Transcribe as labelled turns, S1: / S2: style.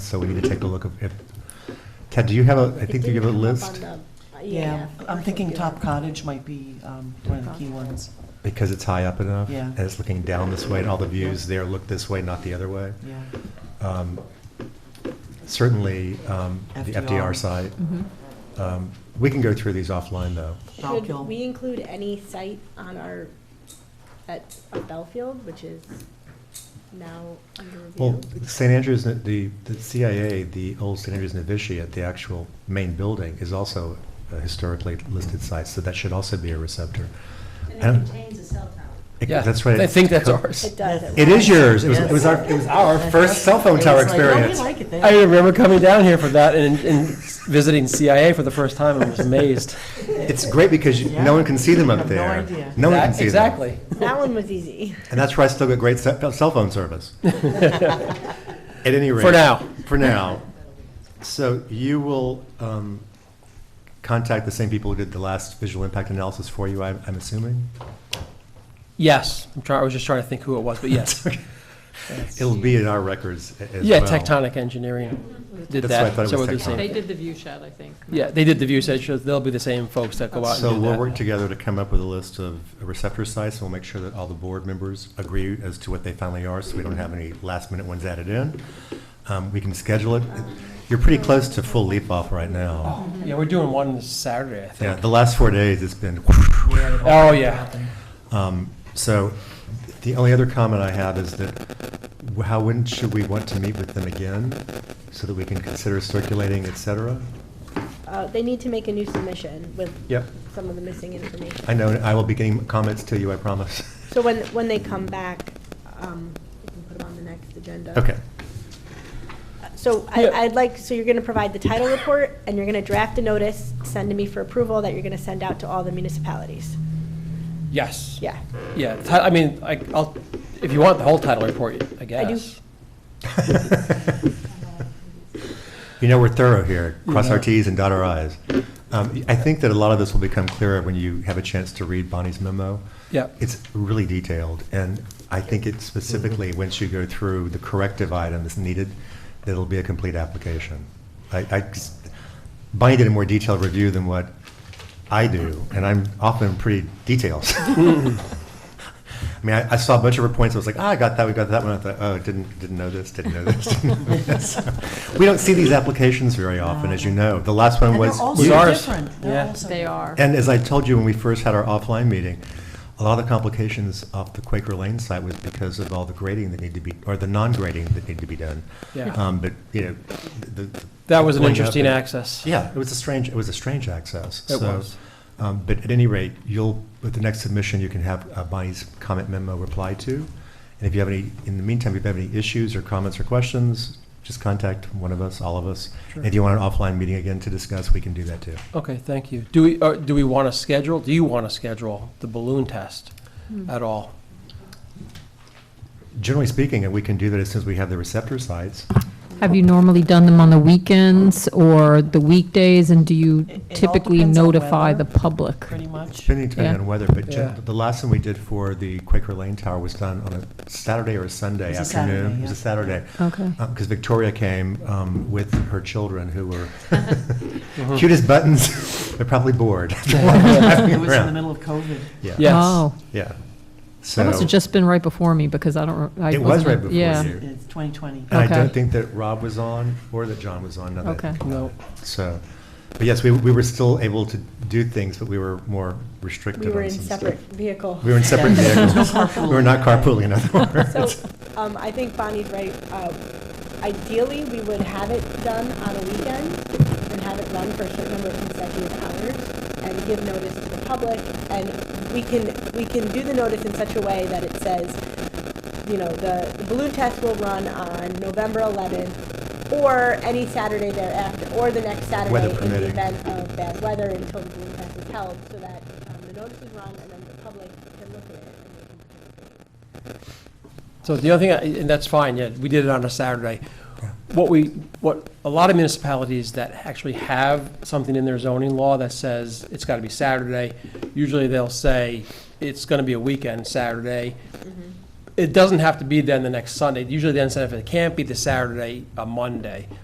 S1: so we need to take a look of if, Ted, do you have a, I think you have a list?
S2: uh,
S3: Yeah, I'm thinking Top
S2: cut.
S3: Cottage might be um, one of the key ones.
S1: Because it's high up enough?
S3: Yeah.
S1: And it's looking down this way, and all the views there look this way, not the other way?
S3: Yeah,
S1: Um, Certainly, um, the
S3: FDR.
S1: FDR site. Um, We can go through these offline, though.
S3: Bellfield.
S2: Should we include any site on our, at Bellfield, which is now under
S1: Well,
S2: review?
S1: St. Andrews, the, the CIA, the old St. Andrews Novitiate, the actual main building, is also a historically listed site, so that should also be a receptor.
S4: And
S1: And-
S4: it contains a cell tower.
S1: It-
S5: Yeah,
S1: That's right.
S5: I think that's
S1: Co-
S5: ours.
S2: It does.
S1: It is yours. It was,
S3: Yes.
S1: it was our, it was our first cell phone tower
S3: It's like, oh, we
S1: experience.
S3: like it there.
S5: I remember coming down here for that and, and visiting CIA for the first time and was amazed.
S1: It's great because you-
S3: Yeah.
S1: no one can see them up
S3: have no
S1: there.
S3: idea.
S1: No one can see them.
S5: Exactly.
S2: That one was easy.
S1: And that's why I still get great ce- cell phone service. At any rate.
S5: For now.
S1: For now. So you will um, contact the same people who did the last visual impact analysis for you, I'm I'm assuming?
S5: Yes, I'm trying, I was just trying to think who it was, but yes.
S1: It'll be in our records a- as well.
S5: Yeah, Tectonic Engineering did
S1: That's
S5: that.
S1: why I thought it
S5: so
S1: was
S5: we're the
S1: Tectonic.
S5: same-
S6: They did the view shed, I think.
S5: Yeah, they did the view set, so they'll be the same folks that go out
S1: So
S5: and do
S1: we'll
S5: that.
S1: work together to come up with a list of receptor sites, and we'll make sure that all the board members agree as to what they finally are, so we don't have any last-minute ones added in. Um, We can schedule it. You're pretty close to full leap off right now.
S5: Yeah, we're doing one this Saturday, I
S1: Yeah,
S5: think.
S1: the last four days, it's been
S5: Oh, yeah.
S1: Um, So the only other comment I have is that how, when should we want to meet with them again so that we can consider circulating, et cetera?
S2: Uh, They need to make a new submission with
S1: Yep.
S2: some of the missing information.
S1: I know, I will be getting comments to you, I promise.
S2: So when, when they come back, um, we can put them on the next agenda. Uh,
S1: Okay.
S2: So I,
S5: Yeah.
S2: I'd like, so you're gonna provide the title report, and you're gonna draft a notice, send to me for approval, that you're gonna send out to all the municipalities.
S5: Yes.
S2: Yeah.
S5: Yeah, ti- I mean, I, I'll, if you want the whole title report, I guess.
S2: do.
S1: You know, we're thorough here. Cross our
S5: Yeah.
S1: Ts and dot our Is. Um, I think that a lot of this will become clearer when you have a chance to read Bonnie's memo.
S5: Yeah.
S1: It's really detailed, and I think it specifically, once you go through the corrective items needed, that it'll be a complete application. I, I just- Bonnie did a more detailed review than what I do, and I'm often pretty detailed. I mean, I, I saw a bunch of her points. I was like, ah, I got that. We got that one. I thought, oh, didn't didn't know this. Didn't know this. Didn't know this. we don't see these applications very often, as you know. The last one
S3: And they're
S1: was
S3: all
S5: Was
S3: so
S5: ours.
S3: different. They're
S5: Yeah.
S3: all so
S6: They are.
S1: and as I told you when we first had our offline meeting, a lot of the complications off the Quaker Lane site was because of all the grading that needed to be, or the non-grading that needed to be done.
S5: Yeah.
S1: Um, but, you know, the. the-
S5: That was an
S1: going up
S5: interesting
S1: and-
S5: access.
S1: Yeah, it was a strange, it was a strange access.
S5: It
S1: So,
S5: was.
S1: Um, but at any rate, you'll, with the next submission, you can have uh, Bonnie's comment memo replied to. And if you have any, in the meantime, if you have any issues or comments or questions, just contact one of us, all of us. And if you want an offline meeting again to discuss, we can do that too.
S5: Okay, thank you. Do we, uh, do we want to schedule, do you want to schedule the balloon test at all?
S1: Generally speaking, and we can do that as soon as we have the receptor sites.
S7: Have you normally done them on the weekends or the weekdays, and do you
S3: It- it all
S7: typically
S3: depends on
S7: notify
S3: weather.
S7: the public?
S3: Pretty much.
S1: Depending depending
S7: Yeah.
S1: on weather, but gen-
S5: Yeah.
S1: the last one we did for the Quaker Lane Tower was done on a Saturday or a Sunday
S3: It was a
S1: afternoon.
S3: Saturday,
S1: It was a
S3: yeah.
S1: Saturday.
S7: Okay.
S1: Because Uh, Victoria came um, with her children who were
S3: Uh-huh.
S1: cute as buttons, but probably bored.
S3: It was in the middle of COVID.
S1: Yeah,
S5: Yes.
S7: Oh,
S1: yeah. So
S7: that must have just been right before me, because I don't. re- I
S1: It was
S7: wasn't-
S1: right before
S7: yeah.
S1: you.
S3: It's 2020.
S1: And I don't
S7: Okay.
S1: think that Rob was on or that John was on, now that I
S7: Okay.
S1: think about
S5: No.
S1: it. So, but yes, we, we were still able to do things, but we were more
S2: We
S1: restricted
S2: were
S1: on
S2: in
S1: some
S2: separate
S1: stuff.
S2: vehicle.
S1: We were in separate
S3: Yeah.
S1: vehicles.
S3: There's no carpooling.
S1: We were not carpooling, in other
S2: So,
S1: words.
S2: um, I think Bonnie's right. Uh, Ideally, we would have it done on a weekend and have it run for a certain number of consecutive hours and give notice to the public. And we can, we can do the notice in such a way that it says, you know, the the balloon test will run on November 11th or any Saturday thereafter, or the next Saturday.
S1: Weather
S2: In the
S1: permitting.
S2: event of bad weather until the balloon test is held, so that um, the notice is run and then the public can look at it and they can participate.
S5: So the other thing, I- and that's fine, yeah, we did it on a Saturday. What we, what, a lot of municipalities that actually have something in their zoning law that says it's got to be Saturday, usually they'll say it's going to be a weekend Saturday. It doesn't have to be then the next Sunday. Usually then, if it can't be the Saturday, a Monday.